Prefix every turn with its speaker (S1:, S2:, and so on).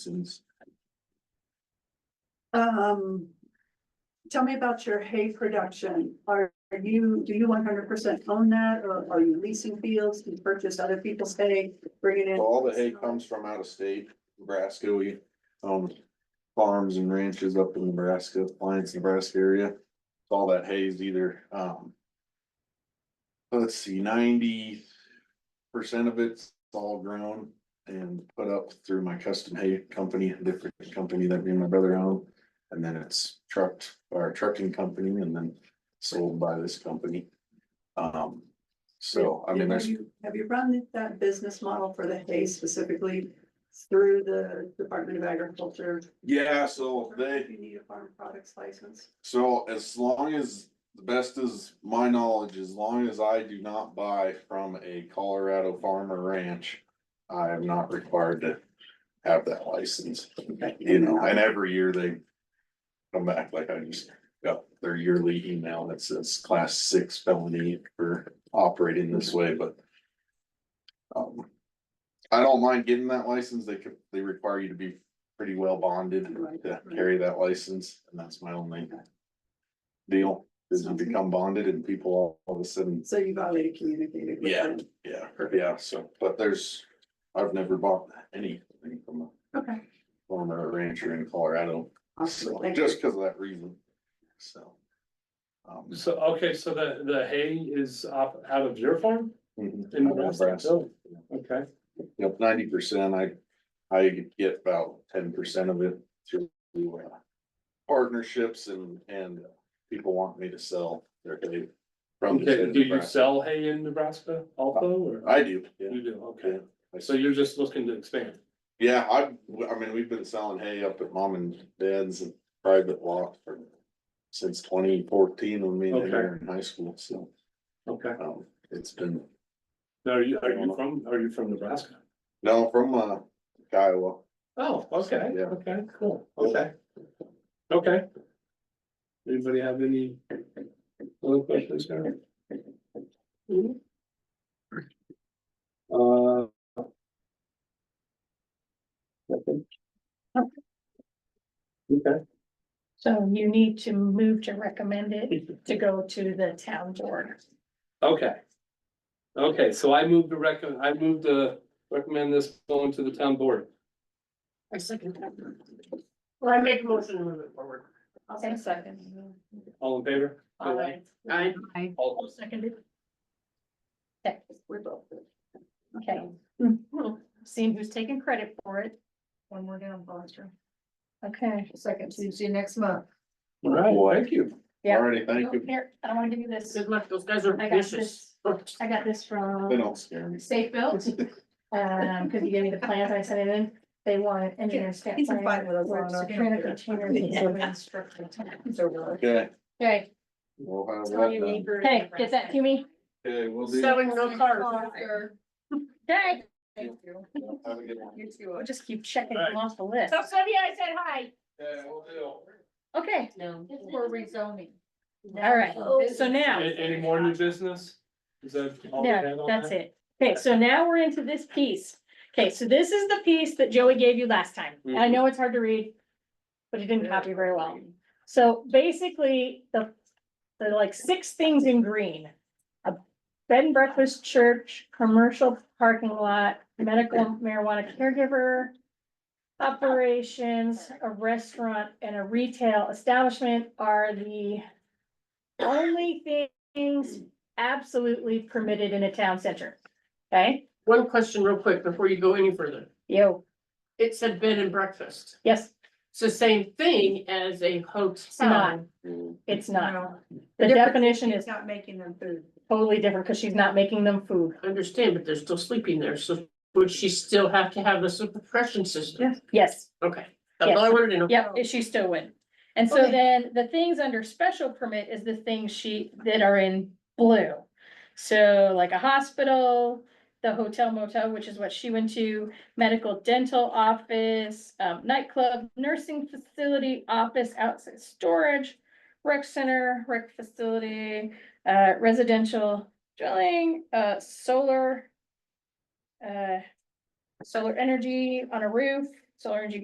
S1: Since
S2: Um, tell me about your hay production. Are are you, do you one hundred percent own that or are you leasing fields? Do you purchase other people's hay, bring it in?
S1: all the hay comes from out of state, Nebraska, we own farms and ranches up in Nebraska, Lions, Nebraska area. All that hay is either, um. Let's see, ninety percent of it's all grown and put up through my custom hay company, a different company that me and my brother own. And then it's trucked, our trucking company, and then sold by this company. Um, so, I mean,
S2: And Have
S1: there's.
S2: you have you run that business model for the hay specifically through the Department of Agriculture?
S1: Yeah, so they,
S2: You need a farm products license.
S1: so as long as, the best is my knowledge, as long as I do not buy from a Colorado farm or ranch. I am not required to have that license, you know, and every year they. Come back, like I just got their yearly email that says class six felony for operating this way, but. Um, I don't mind getting that license, they could, they require you to be pretty well bonded
S2: Right,
S1: to
S2: right.
S1: carry that license, and that's my only. Deal is to
S2: Sounds good.
S1: become bonded and people all all of a sudden,
S2: So you've already communicated with
S1: Yeah.
S2: them.
S1: yeah, yeah, so, but there's, I've never bought anything from a
S2: Okay.
S1: former rancher in Colorado.
S2: Awesome.
S1: So,
S2: Thank you.
S1: just because of that reason, so. um,
S3: So, okay, so the, the hay is off, out of your farm?
S1: mhm,
S3: in
S1: Nebraska.
S3: Nebraska? Okay,
S1: Yep, ninety percent, I, I get about ten percent of it through uh, partnerships and, and people want me to sell their hay. from the state
S3: okay,
S1: of
S3: do you
S1: Nebraska. Uh,
S3: sell hay in Nebraska also, or?
S1: I do, yeah,
S3: You do, okay,
S1: I
S3: so you're just looking to expand,
S1: yeah, I, I mean, we've been selling hay up at mom and dad's private lot for, since twenty fourteen when me and they
S3: Okay.
S1: were in high school, so,
S3: okay,
S1: um, it's been,
S3: now are you, are you from, are you from Nebraska?
S1: no, from, uh, Kiowa.
S3: Oh, okay,
S1: Yeah.
S3: okay, cool, okay, okay. Anybody have any other questions, Karen? Uh. nothing? Okay.
S4: So you need to move to recommend it to go to the town board.
S3: Okay. Okay, so I move to recommend, I move to recommend this going to the town board.
S4: I second that.
S5: Well, I make a motion to move it forward.
S4: I'll say second.
S3: All in favor?
S4: Aye.
S5: I,
S3: All-
S4: I'll second it. Okay, we're both. good. Okay. Hmm. Seeing who's taking credit for it. When we're down, Foster. Okay. Second Tuesday next month.
S3: All right, thank you.
S4: Yeah.
S1: Alrighty, thank you,
S4: Oh, Here, I don't want to give you this.
S5: good luck, those guys are
S4: I got
S5: vicious.
S4: this. I got this from.
S1: they don't scare me.
S4: Safe built, um, because you gave me the plans I sent it in, they want engineer stamp.
S2: He's a
S4: plan,
S2: fight with us
S4: where it's
S2: on our
S4: granite
S2: computer.
S4: container with
S2: Yeah.
S4: some instructional tabs or whatever.
S1: Okay,
S4: Okay,
S1: we'll have
S5: All
S1: that
S5: you
S1: done.
S5: need for-
S4: okay, get that to me.
S1: Okay, we'll do.
S5: Selling no cars.
S4: Okay,
S1: Have a good one.
S2: You
S4: we'll
S2: too.
S4: just keep checking them off the list.
S5: So Sunny, I said hi.
S1: Yeah, we'll do.
S4: Okay,
S5: No.
S4: we're rezoning. All right, so now.
S3: A- Any more new business? Is that all we had
S4: No,
S3: on
S4: that's
S3: that?
S4: it. Okay, so now we're into this piece. Okay, so this is the piece that Joey gave you last time. And I know it's hard to read, but it didn't copy very well. So basically, the, the like six things in green. A bed and breakfast, church, commercial parking lot, medical marijuana caregiver. Operations, a restaurant and a retail establishment are the. Only things absolutely permitted in a town center. Okay,
S5: One question real quick before you go any further.
S4: yo,
S5: It said bed and breakfast.
S4: yes,
S5: It's the same thing as a
S4: not.
S5: hotel.
S4: it's not.
S2: No,
S4: The
S2: difference
S4: definition
S2: It's
S4: is
S2: not making them food.
S4: totally different because she's not making them food.
S5: I Understand, but they're still sleeping there, so would she still have to have the suppression system?
S4: Yes,
S5: Okay, that's all I wanted to know.
S4: yep, she still would. And so
S5: Okay.
S4: then the things under special permit is the things she, that are in blue. So like a hospital, the hotel motel, which is what she went to, medical dental office, um, nightclub, nursing facility, office, outside storage, rec center, rec facility, uh, residential dwelling, uh, solar, uh, solar energy on a roof, solar energy